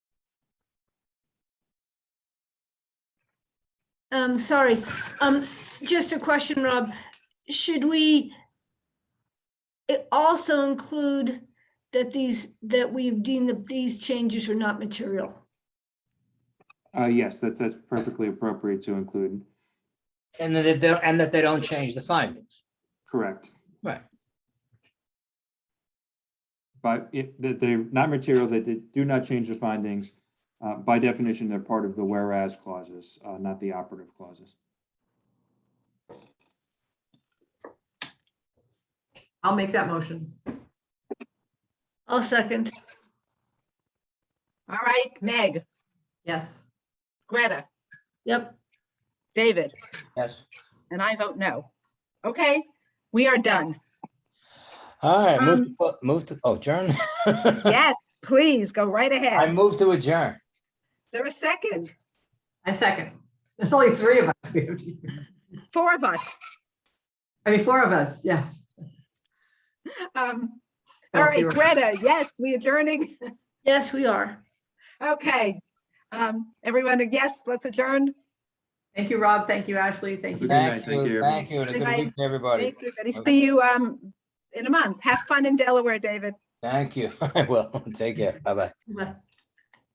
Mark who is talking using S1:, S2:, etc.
S1: Um, sorry, um, just a question, Rob. Should we it also include that these, that we've deemed that these changes are not material?
S2: Uh, yes, that's, that's perfectly appropriate to include.
S3: And that they don't, and that they don't change the findings.
S2: Correct.
S3: Right.
S2: But if, that they're not material, that they do not change the findings. Uh, by definition, they're part of the whereas clauses, uh, not the operative clauses.
S4: I'll make that motion.
S1: I'll second.
S5: All right, Meg,
S4: Yes.
S5: Greta,
S1: Yep,
S5: David,
S3: Yes.
S5: and I vote no. Okay, we are done.
S3: All right,
S5: Um,
S3: move, to clo- move to, oh, adjourn.
S5: Yes, please go right
S3: I
S5: ahead. Is
S3: move to adjourn.
S5: there a second?
S4: I second. There's only three of us. we have to-
S5: Four of us.
S4: I mean, four of us, yes.
S5: Um,
S4: Oh,
S5: All right,
S4: you're-
S5: Greta, yes, we adjourning.
S1: yes, we are.
S5: Okay. Um, Everyone, yes, let's adjourn.
S4: Thank you, Rob. Thank you, Ashley. Thank
S2: Good
S4: you.
S2: night,
S3: Thank
S2: thank you,
S3: you, thank you, and a
S5: Good
S3: good
S5: night.
S3: week to everybody.
S5: Thanks, everybody. See you um, in a month. Have fun in Delaware, David.
S3: Thank you, I will, take care, bye-bye.
S1: Bye.